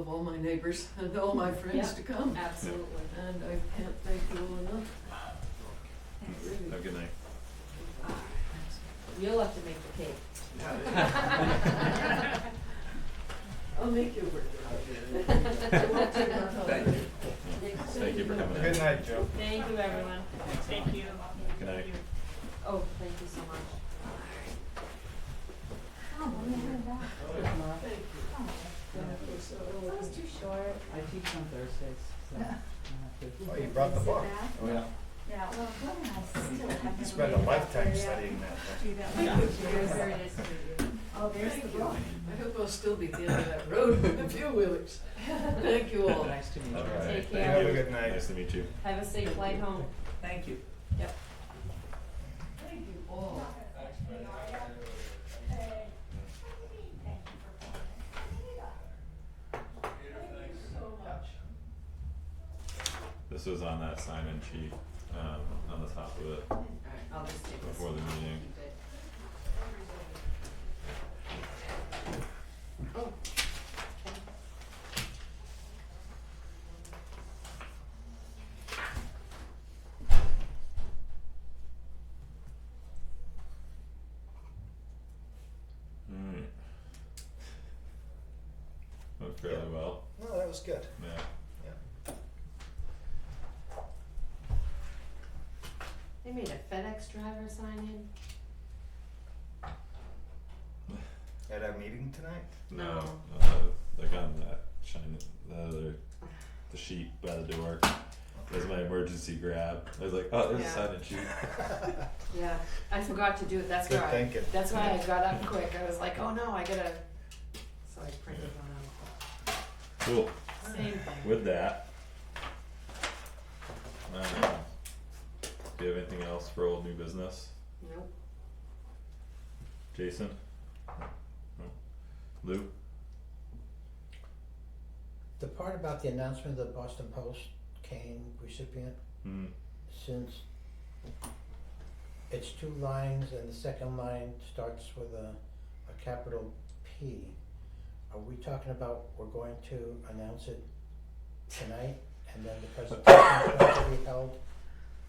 all my neighbors and all my friends Yeah. to come. Absolutely. And I can't thank you all enough. Really. Have a good night. You'll have to make the cake. I'll make you work. I won't take my time. Thank you. Thank you for coming in. Good night, Joe. Thank you, everyone. Thank you. Good night. Oh, thank you so much. Oh, That was too short. I teach on Thursdays, so I have to. Oh, you brought the Sit book. back. Oh, yeah. Yeah, well, Glenn and I still have. You spent a lifetime studying that. Very, very nice to meet you. Oh, there's the book. I hope I'll still be at the end of that road with a few wheelers. Thank you all. Nice to meet you. All right. Take Thank care. you. Have a good night. Nice to meet you. Have a safe flight home. Thank you. Yep. Thank you all. This was on that Simon sheet, um, on the top of it I'll just take this. before the meeting. Keep it. Alright. Went fairly well, No, that was good. yeah. They made a FedEx driver sign in. At our meeting tonight? No, No. uh, like on that China, the other, the sheet by the door. There's my emergency grab. I was like, oh, there's a Yeah. sign and sheet. Yeah, I forgot to do it, that's Good why, I- thinking. that's why I got up quick, I was like, oh no, I gotta, so I printed one Cool. out, same thing. With that, um, do you have anything else for old new business, Nope, Jason? No? Lou? The part about the announcement of the Boston Post cane recipient, Hmm. since it's two lines and the second line starts with a, a capital P, are we talking about we're going to announce it tonight and then the presentation is going to be held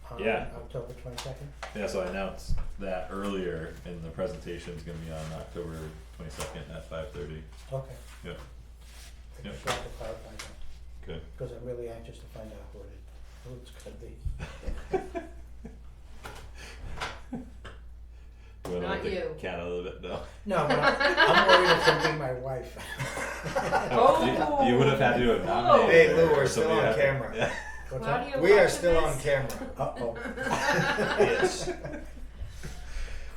on Yeah. October twenty-second? Yeah, so I announced that earlier, and the presentation's gonna be on October twenty second at five thirty. Okay. Yeah. I Yeah. just wanted to clarify that, Good. because I'm really anxious to find out who it is, who it's gonna be. You wanna let Not the you. Cat out of the bit, no. No, but I'm, I'm worried it's gonna be my wife. Oh! You, you would have had to have nominated Hey, her Lou, or we're still somebody on had- camera. Yeah. What's that? Claudia, We are watch still on this. camera. Uh-oh, Yes.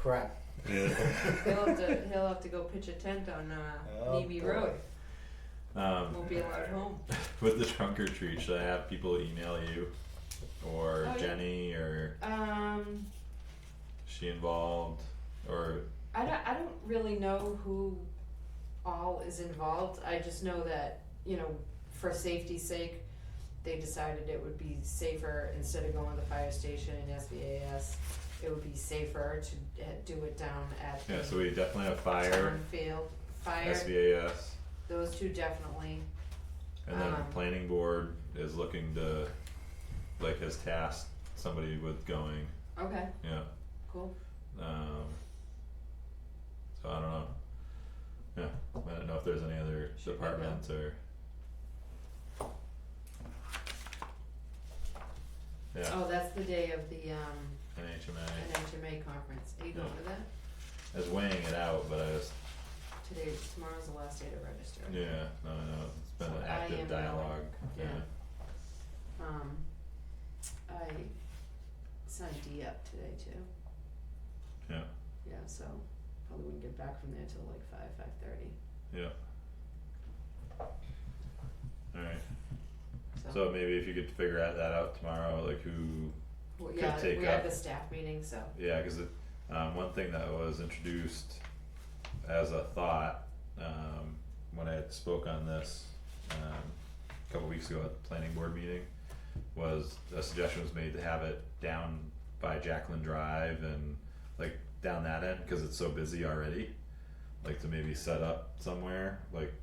crap. He'll have to, he'll have to go pitch a tent on, uh, Oh, Neby boy. Road, won't Um, be allowed home. with the trunk or treat, should I have people email you, or Oh, yeah. Jenny, or? Um, she involved or I don't, I don't really know who all is involved. I just know that, you know, for safety's sake, they decided it would be safer instead of going to the fire station and SBAS, it would be safer to uh, do it down at yeah so the we definitely have town fire field, fire, svas those two definitely. and then Um, planning board is looking to like has tasked somebody with going Okay, yeah cool. um so i don't know yeah i don't know if there's any other Should we go? departments or yeah Oh, that's the day of the, um, nhma NHMA conference. Are you going to that? i was weighing it out but i was Today, tomorrow's the last day to register. yeah no no it's been So an I am active going. dialogue Yeah. Um, I signed D up today too. Yeah. Yeah, so probably wouldn't get back from there till like five, five thirty, all right so. So maybe if you could figure out that out tomorrow, like who, Well, could Yeah, take we had up- the staff meeting, so, yeah, cause it, um, one thing that was introduced as a thought, um, when I had spoke on this, um, a couple weeks ago at the planning board meeting, was a suggestion was made to have it down by Jacqueline Drive and like down that end, cause it's so busy already. Like to maybe set up somewhere, like